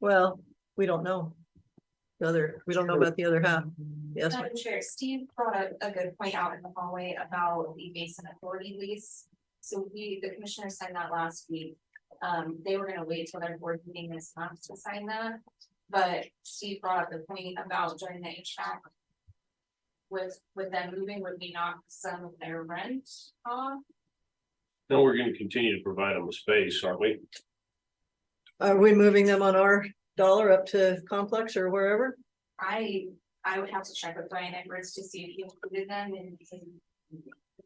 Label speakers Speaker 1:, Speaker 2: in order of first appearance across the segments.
Speaker 1: Well, we don't know. The other, we don't know about the other half. Yes,
Speaker 2: Madam Chair, Steve brought a, a good point out in the hallway about the Basin Authority lease. So we, the commissioner signed that last week. Um, they were gonna wait till their board meeting this month to sign that. But Steve brought up the point about during the HVAC. With, with them moving, would we knock some of their rent off?
Speaker 3: Then we're gonna continue to provide them a space, aren't we?
Speaker 1: are we moving them on our dollar up to complex or wherever?
Speaker 2: I, I would have to check with Brian Edwards to see if he included them and.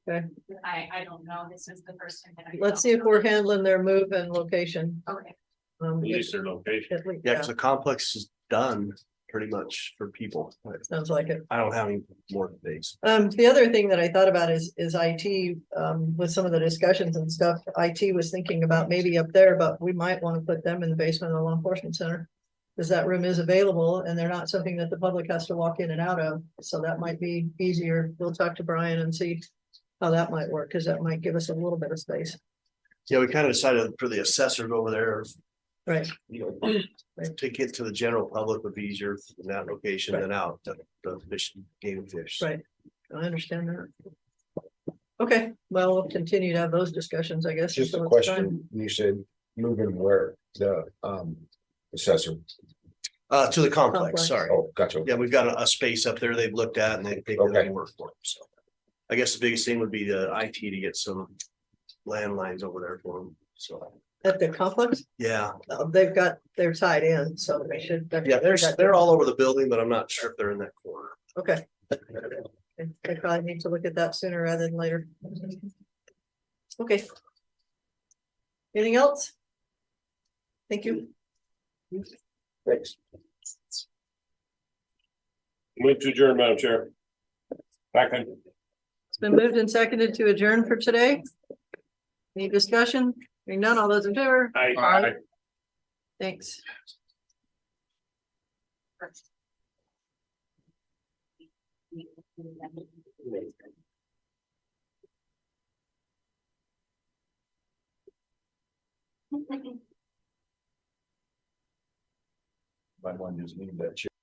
Speaker 1: Okay.
Speaker 2: I, I don't know. This is the first time that I.
Speaker 1: Let's see if we're handling their move and location.
Speaker 2: Okay,
Speaker 1: Um,
Speaker 3: At least their location.
Speaker 1: at least-
Speaker 4: Yeah,
Speaker 1: yeah,
Speaker 4: because the complex is done pretty much for people.
Speaker 1: Sounds like it.
Speaker 4: I don't have any more things.
Speaker 1: Um, the other thing that I thought about is, is IT, um, with some of the discussions and stuff, IT was thinking about maybe up there, but we might want to put them in the basement of the law enforcement center. Cause that room is available and they're not something that the public has to walk in and out of, so that might be easier. We'll talk to Brian and see how that might work, cause that might give us a little bit of space.
Speaker 4: Yeah, we kind of decided for the assessors over there,
Speaker 1: Right.
Speaker 4: you know, to get to the general public would be easier in that location than out the, the fish, game and fish.
Speaker 1: Right. I understand that. Okay, well, we'll continue to have those discussions, I guess.
Speaker 5: Just a
Speaker 1: until it's time.
Speaker 5: question, you said moving where the um assessor,
Speaker 4: Uh, to the complex,
Speaker 1: Complex.
Speaker 4: sorry.
Speaker 5: oh, gotcha.
Speaker 4: Yeah, we've got a, a space up there they've looked at and they think they
Speaker 5: Okay.
Speaker 4: can work for them, so. I guess the biggest thing would be the IT to get some landlines over there for them, so,
Speaker 1: At the complex,
Speaker 4: yeah.
Speaker 1: uh, they've got, they're tied in, so they should.
Speaker 4: Yeah, they're, they're all over the building, but I'm not sure if they're in that corner.
Speaker 1: Okay. They- They probably need to look at that sooner rather than later. Okay. Anything else? Thank you.
Speaker 5: Thanks.
Speaker 3: Move to adjourn, Madam Chair. Second.
Speaker 1: It's been moved and seconded to adjourn for today. Any discussion? Hearing none, all those in favor?
Speaker 3: Aye.
Speaker 1: Aye. Thanks.
Speaker 5: Might want to just leave that chair.